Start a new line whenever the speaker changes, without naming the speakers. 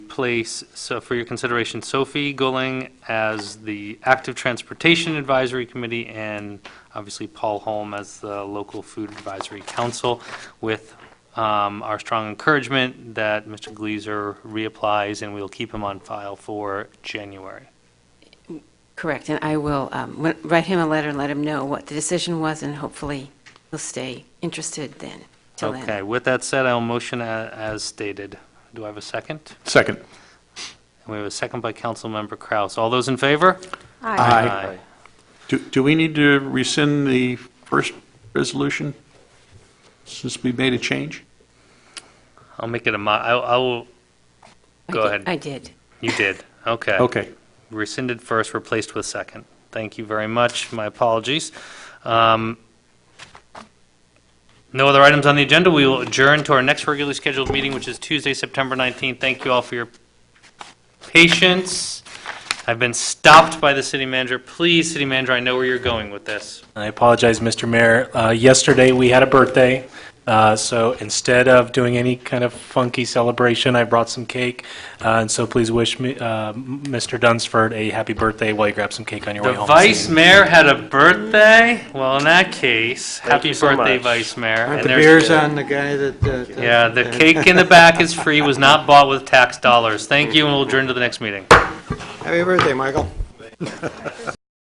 place, so for your consideration, Sophie Gulling as the Active Transportation Advisory Committee, and obviously Paul Holm as the Local Food Advisory Council, with um, our strong encouragement that Mr. Gleaser reapplies, and we'll keep him on file for January.
Correct, and I will um, wi- write him a letter and let him know what the decision was, and hopefully he'll stay interested then, till then.
Okay, with that said, I'll motion a- as stated. Do I have a second?
Second.
And we have a second by Councilmember Kraus. All those in favor?
Aye. Do, do we need to rescind the first resolution since we made a change?
I'll make it a mo, I I will,
I
go
did-
ahead.
I did.
you did, okay.
Okay.
Rescinded first, replaced with second. Thank you very much, my apologies. Um, No other items on the agenda, we will adjourn to our next regularly scheduled meeting, which is Tuesday, September 19th. Thank you all for your patience. I've been stopped by the city manager. Please, city manager, I know where you're going with this.
I apologize, Mr. Mayor. Uh, Yesterday, we had a birthday, uh, so instead of doing any kind of funky celebration, I brought some cake, Uh, and so please wish me, uh, m- Mr. Dunsford a happy birthday while you grab some cake on your
The
way home.
vice mayor had a birthday? Well, in that case, happy
you so
birthday,
much.
vice mayor.
Aren't
And
the
there's-
beers on the guy that... uh, that-
Yeah, the
that-
cake in the back is free, was not bought with tax dollars. Thank you, and we'll adjourn to the next meeting.
Happy birthday, Michael.